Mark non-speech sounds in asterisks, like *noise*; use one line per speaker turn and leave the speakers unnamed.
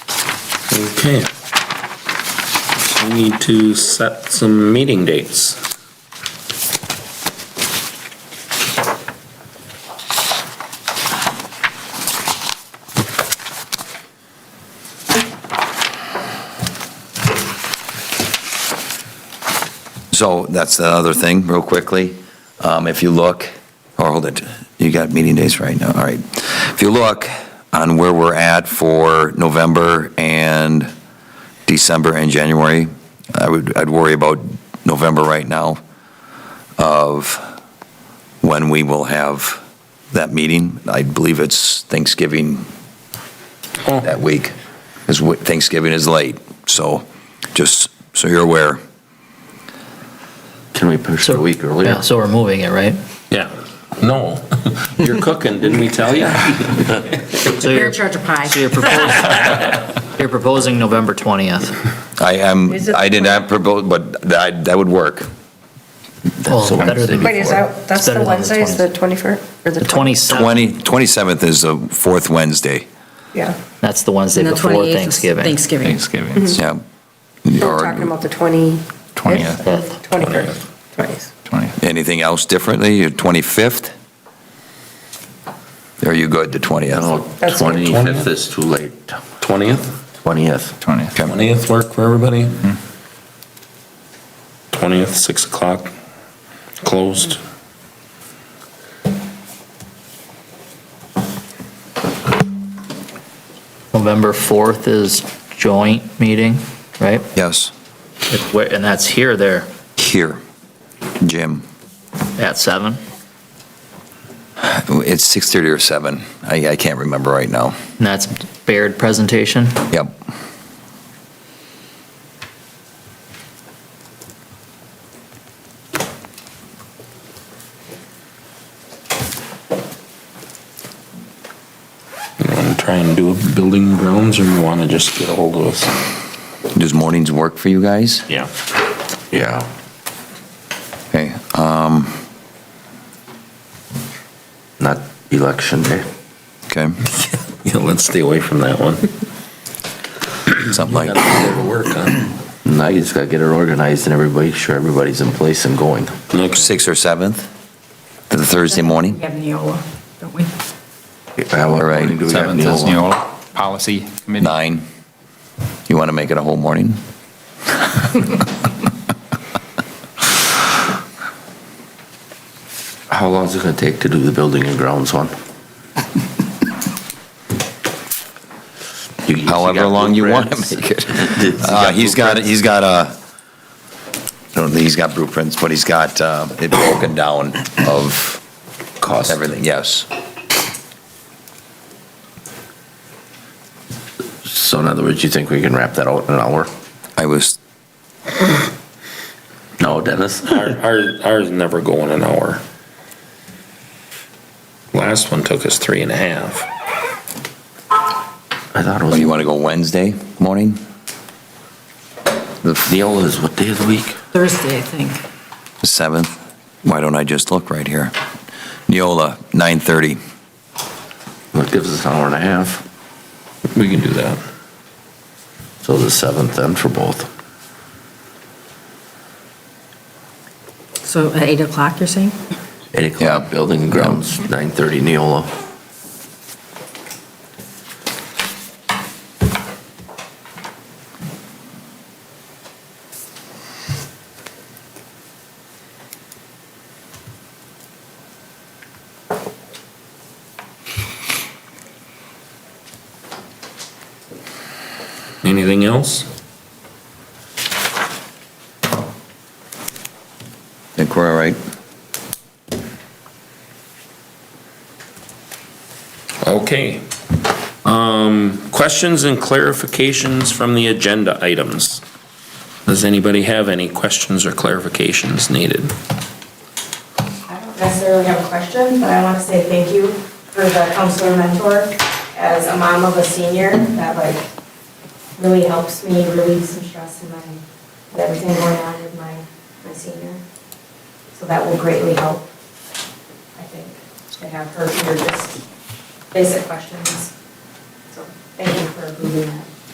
Okay. So We need to set some meeting dates.
So that's the other thing, real quickly. Um, If you look, or hold it, you got meeting days right now, all right. If you look on where we're at for November and December and January, I would, I'd worry about November right now of when we will have that meeting. I believe it's Thanksgiving
Oh.
that week, because Thanksgiving is late. So just so you're aware.
Can we push it a week
Yeah,
earlier?
so we're moving it, right?
Yeah. No, *laughs* you're cooking, didn't we tell you?
So
You're
you're,
in charge of pie.
so you're
*laughs*
proposing, you're proposing November 20th.
I am,
Is it-
I did not propose, but that, that would work.
Well,
a
better than
Wednesday.
Wait, is
before.
that, that's
It's better
the
than
Wednesday, is the 21st, or the
The
20th?
27th,
20, 27th is the fourth Wednesday,
Yeah,
that's the Wednesday
And the
before
28th is
Thanksgiving.
Thanksgiving.
Thanksgiving,
yeah.
So Mm-hmm. we're talking
Or
about the 20?
20th,
21st, 20th.
20th.
anything else differently, your 25th? Are you good, the 20th?
No,
That's-
25th is too late.
20th?
20th.
20th.
20th work for everybody? 20th, 6 o'clock, closed.
November 4th is joint meeting, right?
Yes,
If we're- And that's here, there,
here, Jim,
at 7?
it's 6:30 or 7, I, I can't remember right now.
And that's Baird presentation?
Yep,
You want to try and do a building grounds, or you want to just get a hold of us?
does mornings work for you guys?
Yeah.
Yeah.
Okay, um,
Not election day.
okay,
Yeah, let's stay away from that one.
something like,
Gotta work, huh?
Now you just gotta get it organized and everybody, sure everybody's in place and going.
Looks
6th or 7th, the Thursday morning?
We have Neola, don't we?
All
right.
Seventh is Neola, policy committee.
Nine. You want to make it a whole morning?
How long is it gonna take to do the building and grounds one? You- you
However
got
long you want
blueprints?
to make it.
*laughs* He's got
Uh, He's got,
blueprints.
he's got a, I don't think he's got blueprints, but he's got uh, it broken down of
Cost.
everything, yes.
So in other words, you think we can wrap that out in an hour?
I was,
No, *laughs* Dennis?
Our- Our, ours never go in an hour. Last one took us three and a half.
I thought it
oh, you
was,
want to go Wednesday morning? The f-
Neola is what day of the week?
Thursday, I think.
the 7th? Why don't I just look right here? Neola, 9:30.
That gives us an hour and a half.
We can do that.
So the 7th then for both.
So at 8 o'clock, you're saying?
8
Yeah.
o'clock, building and grounds, 9:30 Neola.
Anything else?
Think we're all right?
Okay. Um, questions and clarifications from the agenda items? Does anybody have any questions or clarifications needed?
I don't necessarily have a question, but I want to say thank you for the counselor mentor as a mom of a senior. That like really helps me relieve some stress in my, with everything going on with my, my senior. So that will greatly help, I think, to have her hear just basic questions. So thank you for approving that.